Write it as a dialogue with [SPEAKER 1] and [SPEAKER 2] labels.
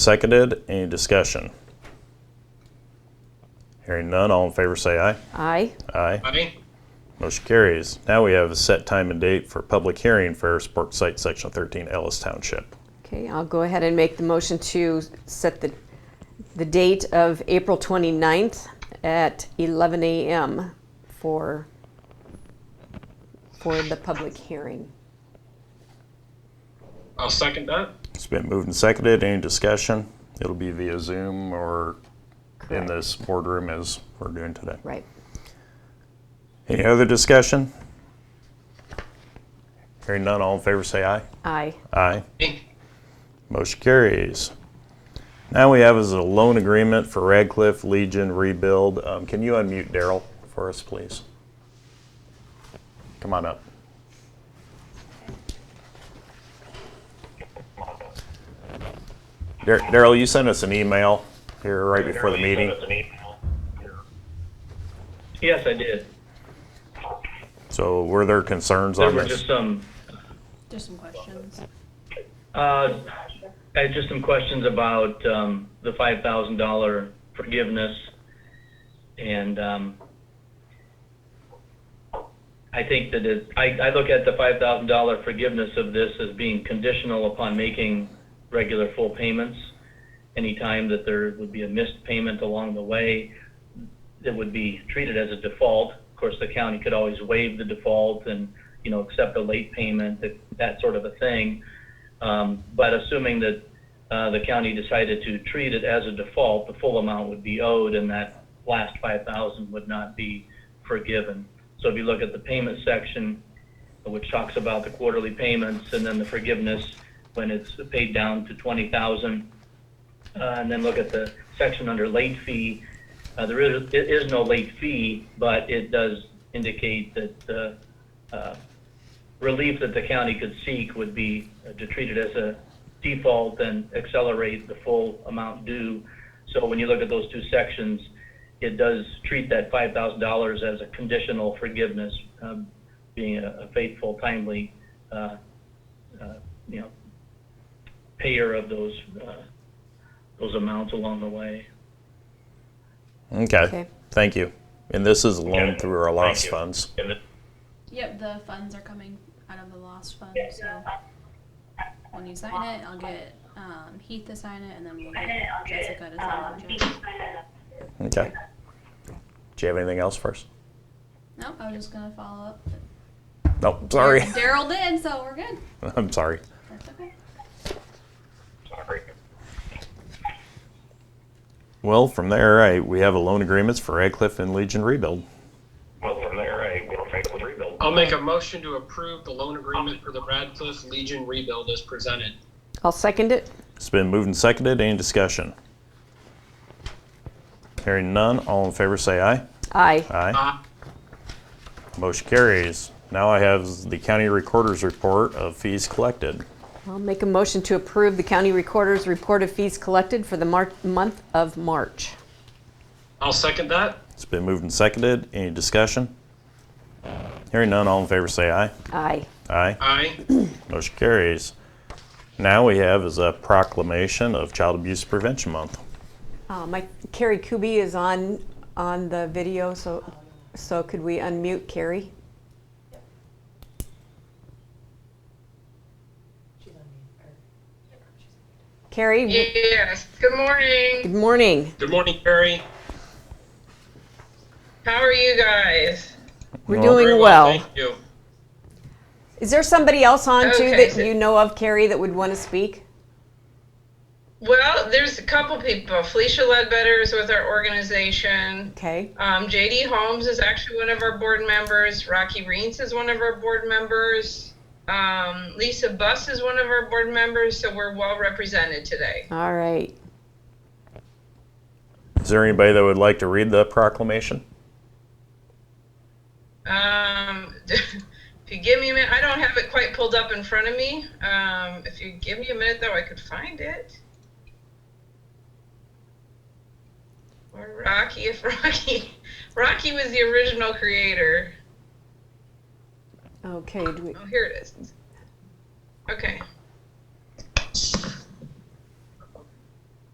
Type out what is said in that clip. [SPEAKER 1] Seconded. Any discussion? Hearing none, all in favor say aye.
[SPEAKER 2] Aye.
[SPEAKER 1] Aye.
[SPEAKER 3] Aye.
[SPEAKER 1] Motion carries. Now we have a set time and date for public hearing for Park Site, Section 13, Ellis Township.
[SPEAKER 2] Okay, I'll go ahead and make the motion to set the, the date of April 29th at 11 a.m. for, for the public hearing.
[SPEAKER 3] I'll second that.
[SPEAKER 1] It's been moved and seconded. Any discussion? It'll be via Zoom or in this boardroom as we're doing today.
[SPEAKER 2] Right.
[SPEAKER 1] Any other discussion? Hearing none, all in favor say aye.
[SPEAKER 2] Aye.
[SPEAKER 1] Aye.
[SPEAKER 3] Aye.
[SPEAKER 1] Motion carries. Now we have is a loan agreement for Radcliffe Legion rebuild. Um, Can you unmute Daryl for us, please? Come on up. Dar- Daryl, you sent us an email here right before the meeting.
[SPEAKER 4] Yes, I did.
[SPEAKER 1] So were there concerns
[SPEAKER 4] There
[SPEAKER 1] on
[SPEAKER 4] were
[SPEAKER 1] this?
[SPEAKER 4] just some,
[SPEAKER 5] There's some questions.
[SPEAKER 4] uh, I had just some questions about, um, the five thousand dollar forgiveness. And, um, I think that it, I, I look at the five thousand dollar forgiveness of this as being conditional upon making regular full payments. Anytime that there would be a missed payment along the way, that would be treated as a default. Of course, the county could always waive the default and, you know, accept a late payment, that, that sort of a thing. Um, but assuming that, uh, the county decided to treat it as a default, the full amount would be owed and that last five thousand would not be forgiven. So if you look at the payment section, which talks about the quarterly payments and then the forgiveness when it's paid down to twenty thousand, uh, and then look at the section under late fee. Uh, there is, it is no late fee, but it does indicate that, uh, uh, relief that the county could seek would be to treat it as a default and accelerate the full amount due. So when you look at those two sections, it does treat that five thousand dollars as a conditional forgiveness, um, being a a faithful, timely, uh, uh, you know, payer of those, uh, those amounts along the way.
[SPEAKER 1] Okay,
[SPEAKER 2] Okay.
[SPEAKER 1] thank you. And this is a loan through our loss
[SPEAKER 3] you.
[SPEAKER 1] funds.
[SPEAKER 5] Yep, the funds are coming out of the lost fund, so when you sign it, I'll get um, Heath to sign it, and then we'll get um, Jessica to sign it. Jess-
[SPEAKER 1] Okay. Do you have anything else first?
[SPEAKER 5] No, I was just gonna follow up.
[SPEAKER 1] No, sorry.
[SPEAKER 5] Daryl did, so we're good.
[SPEAKER 1] I'm sorry.
[SPEAKER 5] That's okay.
[SPEAKER 1] Well, from there, I, we have a loan agreements for Radcliffe and Legion Rebuild.
[SPEAKER 6] Well, from there, I will frankly rebuild.
[SPEAKER 3] I'll make a motion to approve the loan agreement for the Radcliffe Legion rebuild as presented.
[SPEAKER 2] I'll second it.
[SPEAKER 1] It's been moved and seconded. Any discussion? Hearing none, all in favor say aye.
[SPEAKER 2] Aye.
[SPEAKER 1] Aye.
[SPEAKER 3] Aye.
[SPEAKER 1] Motion carries. Now I have the county recorder's report of fees collected.
[SPEAKER 2] I'll make a motion to approve the county recorder's report of fees collected for the Mar- month of March.
[SPEAKER 3] I'll second that.
[SPEAKER 1] It's been moved and seconded. Any discussion? Hearing none, all in favor say aye.
[SPEAKER 2] Aye.
[SPEAKER 1] Aye.
[SPEAKER 3] Aye.
[SPEAKER 1] Motion carries. Now we have is a proclamation of Child Abuse Prevention Month.
[SPEAKER 2] Uh, My, Carrie Kubi is on, on the video, so, so could we unmute Carrie? Carrie, w-
[SPEAKER 7] Yes, good morning.
[SPEAKER 2] good morning.
[SPEAKER 3] Good morning, Carrie.
[SPEAKER 7] How are you guys?
[SPEAKER 2] We're
[SPEAKER 1] Well,
[SPEAKER 2] doing
[SPEAKER 3] Very
[SPEAKER 2] well.
[SPEAKER 3] Thank you.
[SPEAKER 2] Is there somebody else on too
[SPEAKER 7] Okay.
[SPEAKER 2] that you know of, Carrie, that would want to speak?
[SPEAKER 7] Well, there's a couple people. Felicia Ledbetter is with our organization.
[SPEAKER 2] Okay,
[SPEAKER 7] Um, JD Holmes is actually one of our board members. Rocky Reins is one of our board members. Um, Lisa Buss is one of our board members, so we're well represented today.
[SPEAKER 2] all right.
[SPEAKER 1] Is there anybody that would like to read the proclamation?
[SPEAKER 7] Um, if you give me a minute, I don't have it quite pulled up in front of me. Um, if you give me a minute, though, I could find it. Or Rocky, if Rocky, Rocky was the original creator.
[SPEAKER 2] Okay, do we-
[SPEAKER 7] Oh, here it is. Okay.